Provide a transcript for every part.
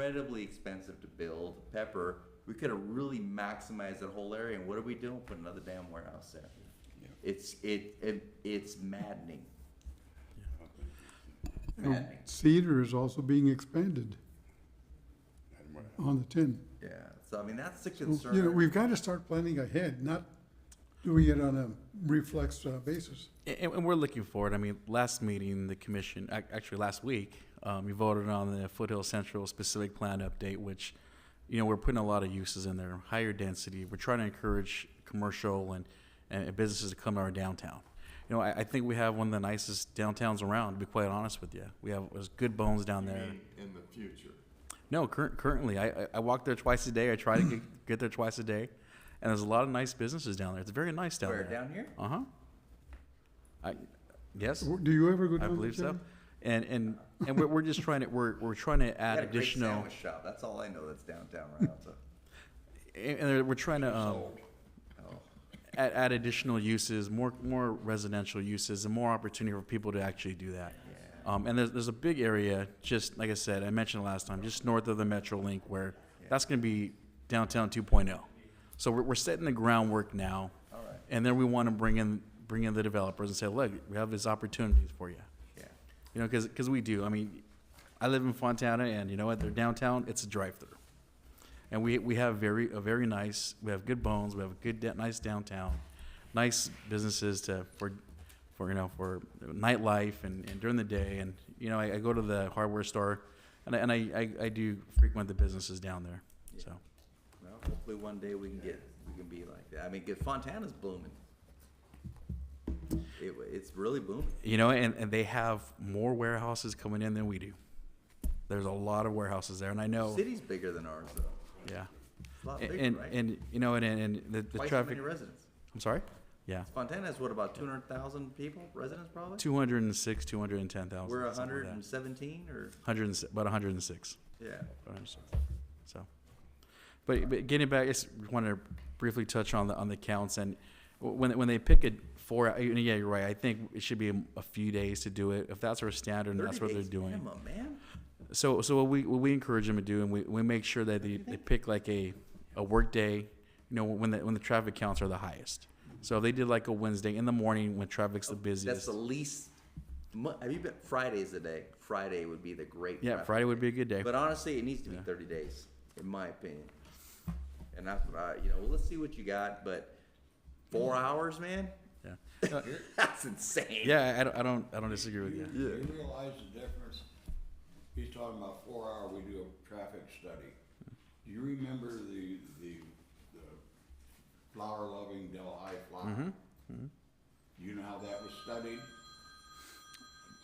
incredibly expensive to build. Pepper, we could have really maximized that whole area, and what are we doing? Put another damn warehouse there. Yeah. It's it, it it's maddening. And Maddening. Cedar is also being expanded And what- on the ten. Yeah. So I mean, that's the concern. You know, we've got to start planning ahead, not doing it on a reflex uh, basis. And, and we're looking forward. I mean, last meeting, the commission, ac- actually last week, um, you voted on the Foothill Central specific plan update, which, you know, we're putting a lot of uses in there, higher density. We're trying to encourage commercial and, and businesses to come to our downtown. You know, I, I think we have one of the nicest downtowns around, to be quite honest with you. We have, there's good bones down there. in the future. No, cur- currently, I, I- I walk there twice a day. I try to get, get there twice a day. And there's a lot of nice businesses down there. It's very nice down Where, there. down here? Uh huh. I, yes. W- Do you ever go I down there, believe so. Jim? And and and we're, we're just trying to we're we're trying to Got add a great additional sandwich shop. That's all I know. That's downtown Rialto. and and we're trying to um, Oh. add, add additional uses, more more residential uses, and more opportunity for people to actually do that. Um, and there's there's a big area just like I said I mentioned last time, just north of the MetroLink where that's going to be downtown 2.0. So we're, we're setting the groundwork now, All right. and then we want to bring in bring in the developers and say, look, we have these opportunities for you. Yeah. You know, because we do. I mean, I live in Fontana, and you know what? They're downtown. It's a drive-through, and we we have very a very nice. We have good bones. We have a good da- nice downtown, nice businesses to for for you know for nightlife and, and during the day. And you know, I, I go to the hardware store, and I, and I, I I do frequent the businesses down there. So Well, hopefully one day we can get we can be like that. I mean, 'cause Fontana's blooming. It, it's really booming. you know, and, and they have more warehouses coming in than we do. There's a lot of warehouses there, and I know. City's bigger than ours though. Yeah. It's a lot And, bigger, and, right? and you know, and, and the, the Twice as traffic. many residents. I'm sorry? Yeah. Fontana has what about two hundred thousand people, residents probably. 206, 210,000. We're something like hundred that. and seventeen or 100 about 106. yeah. 106. So, but, but getting back, I just want to briefly touch on the, on the counts and w- when, when they pick a four, uh, yeah, you're right. I think it should be a, a few days to do it. If that's our standard and 30 that's what they're days doing. minimum, man. So, so what we, what we encourage them to do, and we, we make sure that they, they pick like a, a work day, you know, when the, when the traffic counts are the highest. So if they did like a Wednesday in the morning when traffic's the Oh, That's busiest. the least. mu- Have you been Friday's the day? Friday would be the great. Yeah, traffic Friday would day. be a good day. But honestly, it needs to be thirty days, in my opinion. And that's what I, you know, well, let's see what you got, but four hours, man, Yeah, that's insane. yeah, I don't, I don't, I don't disagree with you. Yeah. Do you realize the difference? He's talking about four hour, we do a traffic study. Do you remember the, the, the flower loving Del High Mm-hmm. flower? You know how that was studied?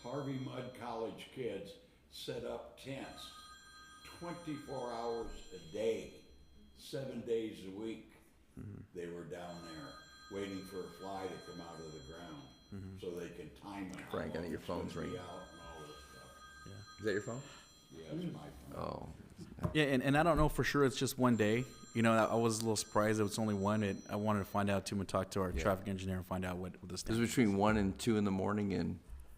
Harvey Mudd College kids set up tents twenty-four hours a day, seven days a week. Mm-hmm. They were down there waiting for a fly to come out of the ground so they could time it. how Mm-hmm. Frank, I think long your it's gonna phone's be ringing. out and all this Is that your phone? stuff. Yeah, it's my phone. Oh. Yeah, and, and I don't know for sure, it's just one day. You know, I I was a little surprised it was only one, and I wanted to find out too, and talk to our traffic engineer and find out what, what the It was standard. between one and two in the morning and,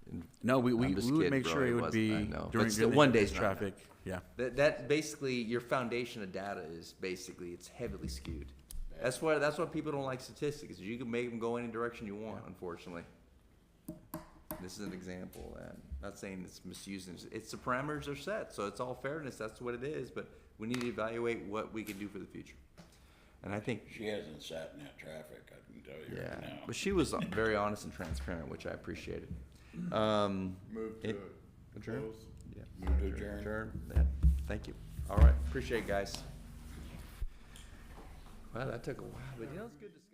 and No, we, I'm we, just we would kidding, make bro, sure it it would wasn't, I be know. But during, still, during one the day's day's not enough. traffic, yeah. that, that basically your foundation of data is basically it's heavily skewed. That's why that's why people don't like statistics. is You can make them go any direction you want, unfortunately. This is an example. of that. I'm not saying it's misusing. it. It's the parameters are set, so it's all fairness. That's what it is. But we need to evaluate what we can do for the future. And I think She hasn't sat in that traffic, I can tell Oh. you yeah, right now. but she was uh, very honest and transparent, which I appreciated. Um, Move to adjourn. Yeah. Move to adjourn. Yeah, thank you. All right, appreciate it, guys. Wow, that took a while, but you know, it's good to.